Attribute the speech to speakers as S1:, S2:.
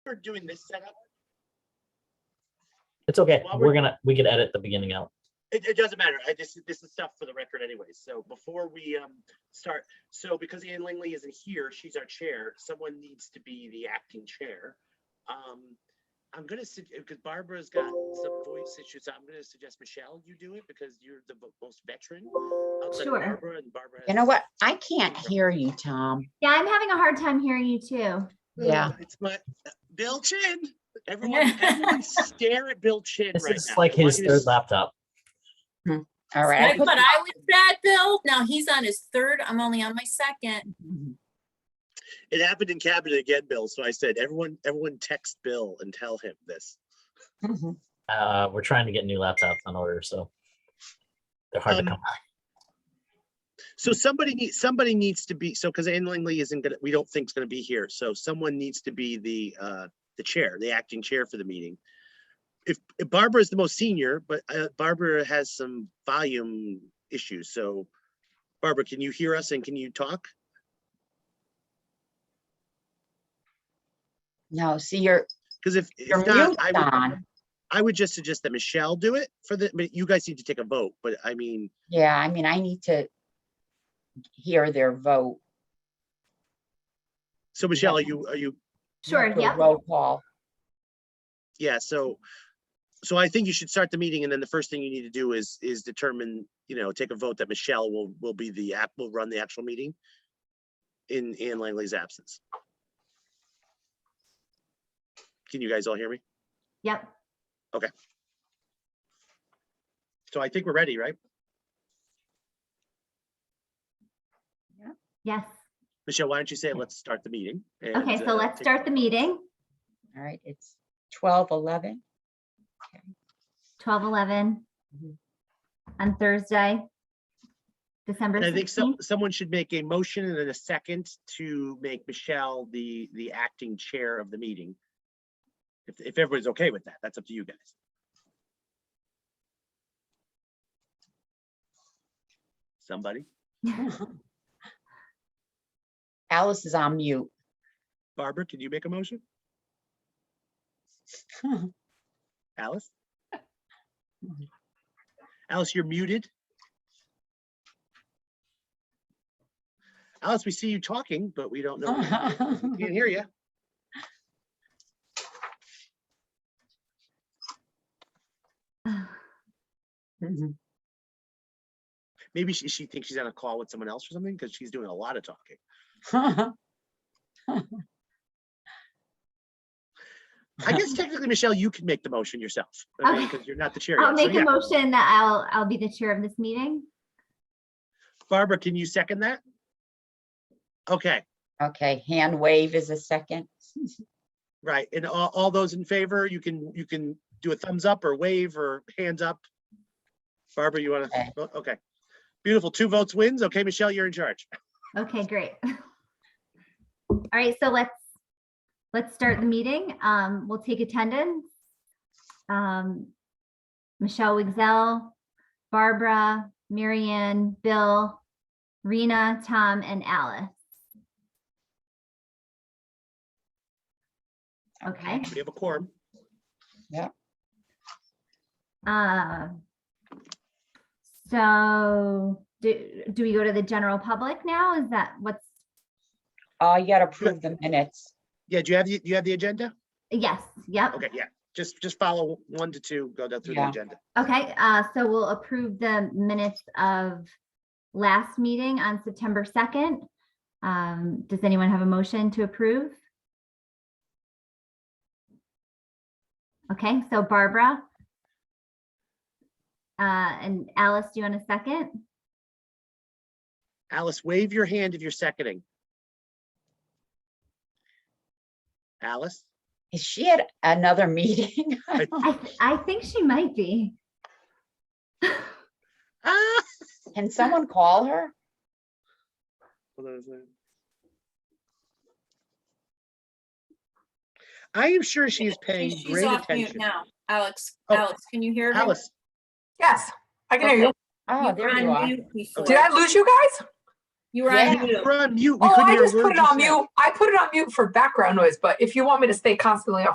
S1: we're doing this setup,
S2: It's okay.
S1: While we're-
S2: We're gonna, we could edit the beginning out.
S1: it, it doesn't matter. I just, this is stuff for the record anyways. So before we um start, so because Ann Langley isn't here, she's our chair, someone needs to be the acting chair. Um, I'm gonna, because Barbara's got some voice issues, I'm gonna suggest Michelle, you do it because you're the vo- most veteran. outside of
S3: Sure.
S1: Barbara and Barbara.
S3: You
S1: has-
S3: know what? I can't hear you, Tom.
S4: Yeah, I'm having a hard time hearing you too.
S3: Yeah.
S1: It's my, Bill Chin, everyone, everyone stare at Bill Chin
S2: This
S1: right
S2: is
S1: now.
S2: like
S1: I want
S2: his
S1: you to
S2: third
S1: s-
S2: laptop.
S3: All right. I
S5: Right,
S3: put-
S5: But I was that, Bill. Now he's on his third. I'm only on my second.
S1: It happened in cabinet again, Bill. So I said, everyone, everyone text Bill and tell him this.
S3: Mhm.
S2: Uh, we're trying to get new laptops on order, so. They're hard to
S1: Um,
S2: come. by.
S1: So somebody needs, somebody needs to be, so because Ann Langley isn't gonna, we don't think is gonna be here. So someone needs to be the, uh, the chair, the acting chair for the meeting. If if Barbara is the most senior, but uh, Barbara has some volume issues. So Barbara, can you hear us and can you talk?
S3: No, see, you're,
S1: Because if, if
S3: your
S1: not, I
S3: mute's
S1: would,
S3: on.
S1: I would just suggest that Michelle do it for the, but you guys need to take a vote, but I mean,
S3: Yeah, I mean, I need to hear their vote.
S1: so Michelle, are you, are you
S4: Sure,
S3: Do a
S4: yep.
S3: Roll call.
S1: Yeah, so, so I think you should start the meeting and then the first thing you need to do is, is determine, you know, take a vote that Michelle will, will be the app, will run the actual meeting in Ann Langley's absence. Can you guys all hear me?
S4: Yep.
S1: So I think we're ready, right?
S4: Yes.
S1: Michelle, why don't you say, let's start the meeting?
S4: Okay,
S1: and,
S4: so
S1: uh,
S4: let's
S1: take-
S4: start the meeting.
S3: All right, it's twelve eleven.
S4: Twelve eleven
S1: Mm-hmm.
S3: Mhm.
S4: on Thursday, December
S1: And I think some,
S4: sixteenth.
S1: someone should make a motion and then a second to make Michelle the, the acting chair of the meeting. If, if everybody's okay with that, that's up to you guys. Somebody?
S3: Alice is on mute.
S1: Barbara, can you make a motion? Alice? Alice, you're muted. Alice, we see you talking, but we don't know. We Can't hear you.
S3: Mhm.
S1: Maybe she, she thinks she's on a call with someone else or something because she's doing a lot of talking. I guess technically, Michelle, you can make the motion yourself, okay?
S4: Okay.
S1: Because you're not the chair.
S4: I'll
S1: yet. So,
S4: make a
S1: yeah.
S4: motion that I'll, I'll be the chair of this meeting.
S1: Barbara, can you second that? Okay,
S3: Okay, hand wave is a second.
S1: right. And all, all those in favor, you can, you can do a thumbs up or wave or hands up. Barbara, you want
S3: Okay.
S1: to, okay. Beautiful. Two votes wins. Okay, Michelle, you're in charge.
S4: Okay, great. All right, so let's, let's start the meeting. Um, we'll take attendance. Um, Michelle Wigzell, Barbara, Marianne, Bill, Rena, Tom, and Alice. Okay,
S1: We have a quorum.
S4: uh, so do, do we go to the general public now? Is that what's,
S3: Oh, you gotta approve the minutes.
S1: Yeah, do you have, the do you have the agenda?
S4: yes, yep.
S1: Okay, yeah. Just, just follow one to two, go down through the
S3: Yeah.
S1: agenda.
S4: Okay, uh, so we'll approve the minutes of last meeting on September second. Um, does anyone have a motion to approve? Okay, so Barbara. Uh, and Alice, do you want a second?
S1: Alice, wave your hand if you're seconding. Alice?
S3: Is she at another meeting?
S1: I-
S4: I, th- I think she might be.
S1: Ah!
S3: Can someone call her?
S1: Hold on a second. I am sure she is paying
S5: She's
S1: great
S5: off mute
S1: attention.
S5: now. Alex,
S1: Oh.
S5: Alex, can you hear me?
S1: Alice,
S6: Yes, I can hear you.
S3: Oh,
S5: You're
S3: there you
S5: on
S3: are.
S5: mute before.
S6: Did I lose you guys?
S5: You were
S3: Yeah.
S5: on mute.
S1: We're on mute. We
S6: Oh,
S1: couldn't
S6: I
S1: hear a
S6: just
S1: word
S6: put it
S1: you
S6: on
S1: said.
S6: mute. I put it on mute for background noise, but if you want me to stay constantly